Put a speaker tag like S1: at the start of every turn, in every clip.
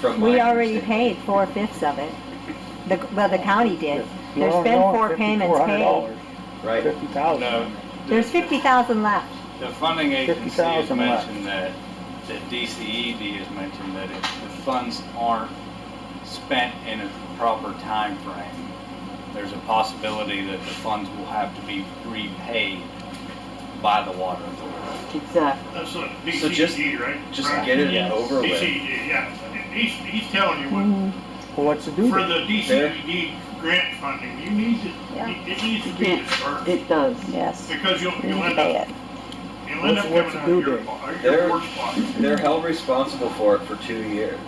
S1: from my
S2: We already
S1: understanding.
S2: paid four fifths of it. The, well, the county did. There's
S3: No,
S2: been
S3: no,
S2: four payments paid.
S3: $5,400,
S1: Right,
S3: Fifty thousand.
S4: Oh, No,
S2: There's fifty thousand left.
S4: the funding agency has
S3: 50,000 left.
S4: mentioned that, the DCED has mentioned that if the funds aren't spent in a proper time frame, there's a possibility that the funds will have to be repaid by the water authority.
S2: Exactly.
S5: That's a
S1: So just-
S5: DCD, E, right?
S1: just
S5: Right.
S1: get it
S4: Yes.
S1: over with.
S5: DCD, yeah. He's, he's telling you what,
S2: Mm,
S3: Well, what's the due
S5: for
S3: date?
S5: the DCD grant funding, you need to,
S2: Yeah.
S5: it needs to be dispersed.
S6: It does.
S7: Yes.
S5: Because you'll,
S7: We
S5: you'll
S7: need to
S5: end
S7: pay
S5: up,
S7: it.
S5: you'll end up
S3: What's- what's
S5: coming
S3: the
S5: out
S3: due
S5: of your,
S3: date?
S5: po-
S1: There-
S5: your work spot.
S1: They're held responsible for it for two years.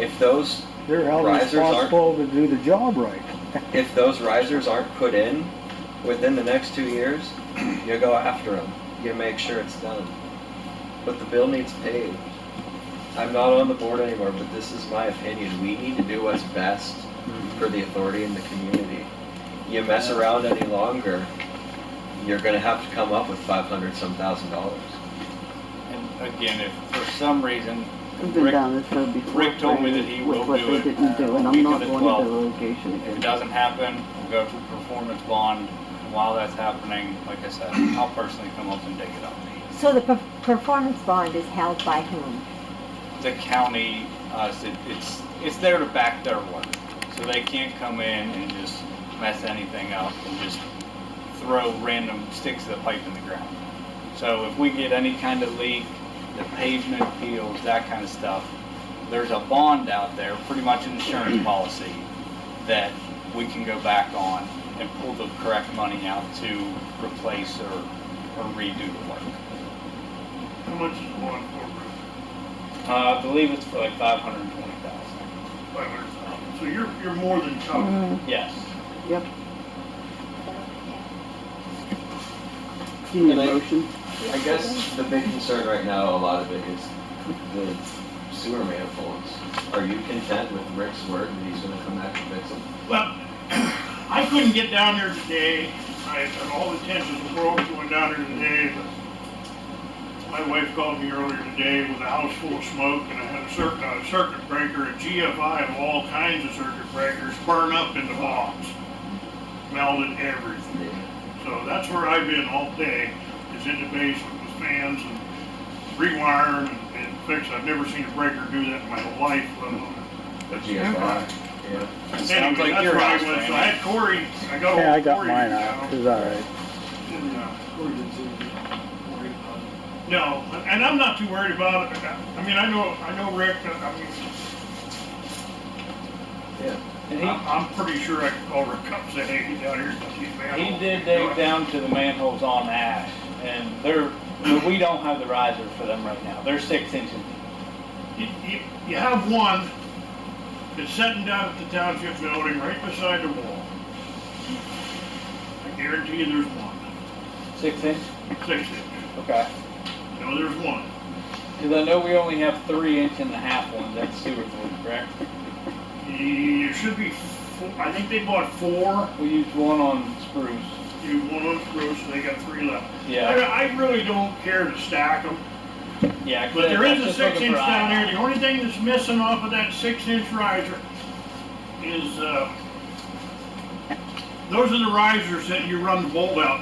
S1: If those,
S3: They're held
S1: risers aren't-
S3: responsible to do the job right.
S1: if those risers aren't put in within the next two years, you go after them. You make sure it's done. But the bill needs paid. I'm not on the board anymore, but this is my opinion. We need to do what's best for the authority and the community. You mess around any longer, you're gonna have to come up with five hundred some thousand dollars.
S4: And again, if for some reason,
S6: We've been
S4: Rick-
S6: down this road before.
S4: Rick told me that he
S6: with
S4: will
S6: what
S4: do
S6: they
S4: it,
S6: didn't do, and
S4: uh,
S6: I'm not
S4: week of the
S6: going to the litigation
S4: If it
S6: again.
S4: doesn't happen, we'll go to performance bond. And While that's happening, like I said, I'll personally come up and dig it up.
S2: So the per- performance bond is held by whom?
S4: The county, uh, s- it's, it's there to back their work. So they can't come in and just mess anything up and just throw random sticks of the pipe in the ground. So if we get any kind of leak, the pavement peels, that kind of stuff, there's a bond out there, pretty much an insurance policy, that we can go back on and pull the correct money out to replace or, or redo the work.
S5: How much is one for,
S4: Uh, I believe it's for like five hundred and twenty thousand.
S5: five hundred thousand? So you're, you're more than covered.
S4: Yes.
S6: Yep. Do you need
S1: And I-
S6: a motion?
S1: I guess the big concern right now, a lot of it is the sewer manifolds. Are you content with Rick's word that he's gonna come back and fix them?
S5: Well, I couldn't get down there today. I had all the attention in the world going down there today, but my wife called me earlier today with a house full of smoke and I had a circuit, a circuit breaker, a GFI of all kinds of circuit breakers burn up into bombs. Melted everything. So that's where I've been all day, is in the basement with fans and rewiring and- and fix. I've never seen a breaker do that in my whole life, let alone
S1: The GFI, yeah.
S5: Anyway,
S4: Sounds like
S5: that's
S4: your
S5: where I
S4: house,
S5: was, so I
S4: Randy.
S5: had Corey, I got
S3: Yeah, I
S5: old
S3: got
S5: Corey.
S3: mine out. It was all right.
S5: No, and I'm not too worried about it, I mean, I know, I know Rick, I mean,
S1: Yeah.
S4: And he,
S5: I'm, I'm pretty sure I could call Rick up and say, hey, get down here, and see man.
S4: He did dig down to the manholes on Ash, and they're, we don't have the riser for them right now. They're six inches.
S5: You, you, you have one that's sitting down at the township building right beside the wall. I guarantee you there's one,
S4: Six inch?
S5: six inch,
S4: Okay.
S5: no, there's one.
S4: Because I know we only have three inch and a half ones at Seward's, correct?
S5: There should be, four, I think they bought four,
S4: We used one on spruce.
S5: you one on Spruce, and they got three left. I,
S4: Yeah,
S5: I really don't care to stack them,
S4: yeah. 'cause
S5: but there
S4: I'm
S5: is a
S4: just
S5: six
S4: looking
S5: inch
S4: for
S5: down there.
S4: iron.
S5: The only thing that's missing off of that six inch riser is, uh, those are the risers that you run the bolt out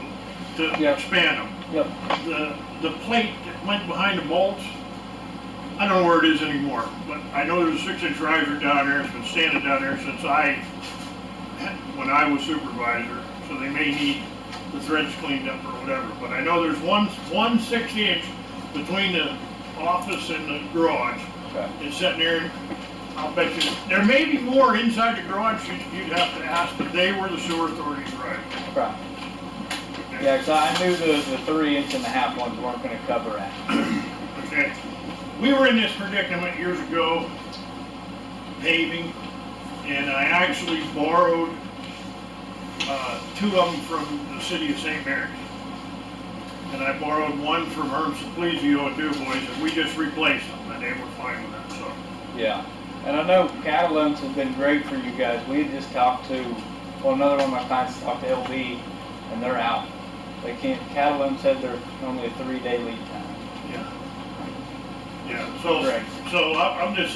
S5: to
S4: Yeah.
S5: expand them.
S4: Yep.
S5: The, the plate that went behind the bolts, I don't know where it is anymore, but I know there's a six inch riser down there. It's been standing down there since I, when I was supervisor, so they may need the threads cleaned up or whatever, but I know there's one, one six inch between the office and the garage.
S4: Okay.
S5: It's sitting there, I'll bet you, there may be more inside the garage, you'd, you'd have to ask, but they were the sewer authorities, right?
S4: Right. Yeah, because I knew the, the three inch and a half ones weren't going to cover Ash.
S5: Okay. We were in this predicament years ago, paving, and I actually borrowed, uh, two of them from the city of St. Mary's. And I borrowed one from Herb Simplizio at DuBois, and we just replaced them, and they were fine with that, so.
S4: Yeah, and I know Catalans has been great for you guys. We had just talked to, well, another one of my clients talked to LB, and they're out. They can't, Catalan said they're normally a three-day lead time.
S5: Yeah. Yeah, so,
S4: Correct.
S5: so I- I'm just